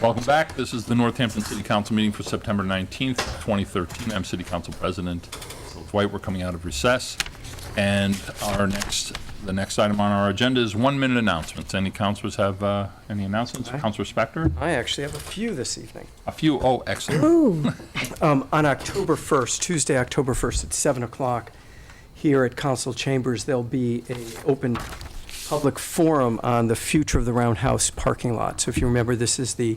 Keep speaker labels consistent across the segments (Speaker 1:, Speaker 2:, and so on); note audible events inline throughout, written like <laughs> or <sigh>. Speaker 1: Welcome back. This is the Northampton City Council meeting for September 19th, 2013. I'm City Council President Bill Dwight. We're coming out of recess. And our next, the next item on our agenda is one-minute announcements. Any councilors have uh, any announcements? Councilor Spector?
Speaker 2: I actually have a few this evening.
Speaker 1: A few. Oh, excellent.
Speaker 2: Um, On October 1st, Tuesday, October 1st, at 7 o'clock, here at council chambers, there'll be an open public forum on the future of the Roundhouse parking lot. So if you remember, this is the,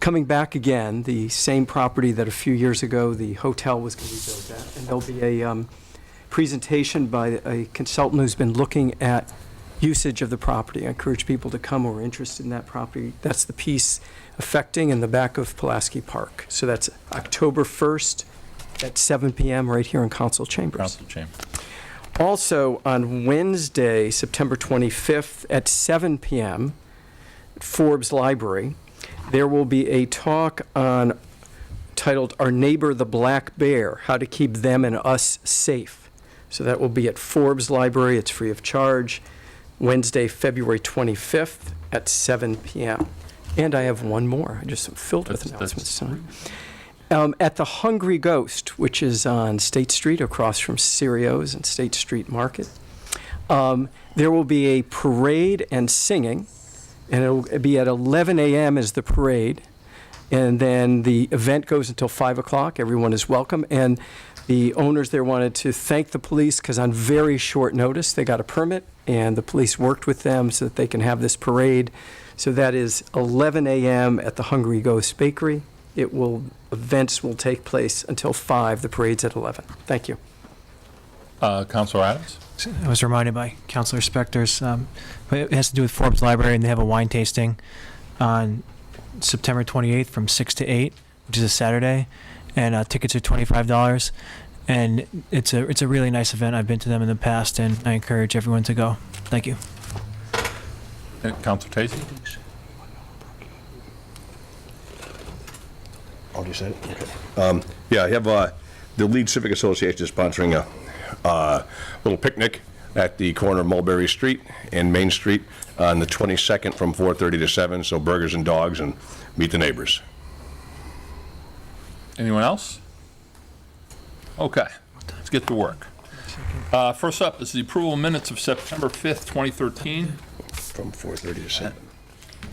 Speaker 2: coming back again, the same property that a few years ago, the hotel was going to be built at. And there'll be a um, presentation by a consultant who's been looking at usage of the property. I encourage people to come who are interested in that property. That's the piece affecting in the back of Pulaski Park. So that's October 1st at 7 PM right here in council chambers.
Speaker 1: Council Chamber.
Speaker 2: Also, on Wednesday, September 25th at 7 PM, at Forbes Library, there will be a talk on, titled Our Neighbor the Black Bear, How to Keep Them and Us Safe. So that will be at Forbes Library, it's free of charge, Wednesday, February 25th at 7 PM. And I have one more, I just am filled with
Speaker 1: That's-
Speaker 2: announcements
Speaker 1: that's-
Speaker 2: tonight. Um, at the Hungry Ghost, which is on State Street across from Cereos and State Street Market, um, there will be a parade and singing, and it'll be at 11 a.m. is the parade, and then the event goes until 5 o'clock. Everyone is welcome, and the owners there wanted to thank the police because on very short notice they got a permit, and the police worked with them so that they can have this parade. So that is 11 a.m. at the Hungry Ghost Bakery. It will events will take place until 5. The parade's at 11. Thank you.
Speaker 1: Uh, Councilor Adams?
Speaker 3: I was reminded by Councilor Spector's, um, but it has to do with Forbes Library, and they have a wine tasting on September 28th from 6 to 8, which is a Saturday, and uh, tickets are $25. And it's a it's a really nice event. I've been to them in the past, and I encourage everyone to go. Thank you.
Speaker 1: Uh, Councilor Tacey?
Speaker 4: Oh, you said it? Okay. Um, Yeah, I have, uh, the Lead Civic Association is sponsoring a uh, little picnic at the corner of Mulberry Street and Main Street on the 22nd from 4:30 to 7. So burgers and dogs and meet the neighbors.
Speaker 1: Anyone else? Okay, let's get to work. Uh, First up is the approval of minutes of September 5th, 2013.
Speaker 4: From 4:30 to 7.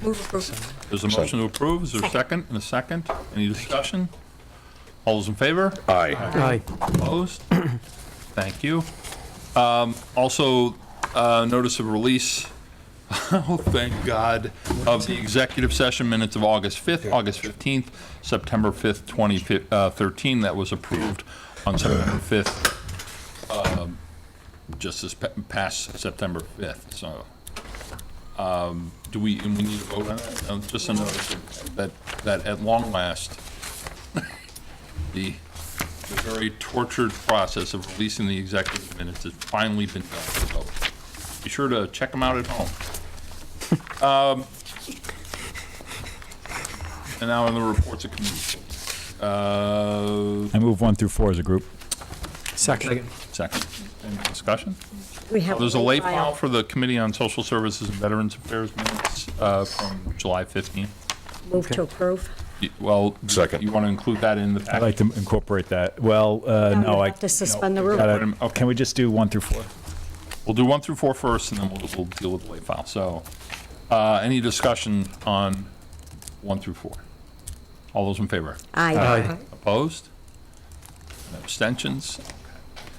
Speaker 5: Move approval.
Speaker 1: There's a motion to approve. Is there a second and a second? Any discussion? All those in favor?
Speaker 4: Aye.
Speaker 2: Aye.
Speaker 1: Opposed? <clears throat> Thank you. Um, Also, uh, notice of release, <laughs> oh, thank God, of the executive session minutes of August 5th, August 15th, September 5th, 2013, uh, that was approved on September 5th, um, just this pa- past September 5th, so. um, Do we, and we need to vote on that? Uh, Just a notice that, that at long last, <laughs> the the very tortured process of releasing the executive minutes has finally been done. So be sure to check them out at home. Um, And now on the reports of committees. Uh,
Speaker 6: I move one through four as a group.
Speaker 2: Second.
Speaker 1: Second, any discussion?
Speaker 5: We have.
Speaker 1: There's a late file for the Committee on Social Services and Veterans Affairs minutes uh, from July 15th.
Speaker 5: Move to approve.
Speaker 1: You- Well,
Speaker 4: Second.
Speaker 1: you want to include that in the
Speaker 6: I'd like
Speaker 1: package?
Speaker 6: to incorporate that. Well, uh,
Speaker 5: Now
Speaker 6: no,
Speaker 5: we
Speaker 6: I.
Speaker 5: have to suspend the
Speaker 6: no,
Speaker 5: rule.
Speaker 6: gotta- oh, Can we just do one through four?
Speaker 1: We'll do one through four first, and then we'll, we'll deal with the late file. So, uh, any discussion on one through four? All those in favor?
Speaker 5: Aye.
Speaker 1: Opposed? Abstentions?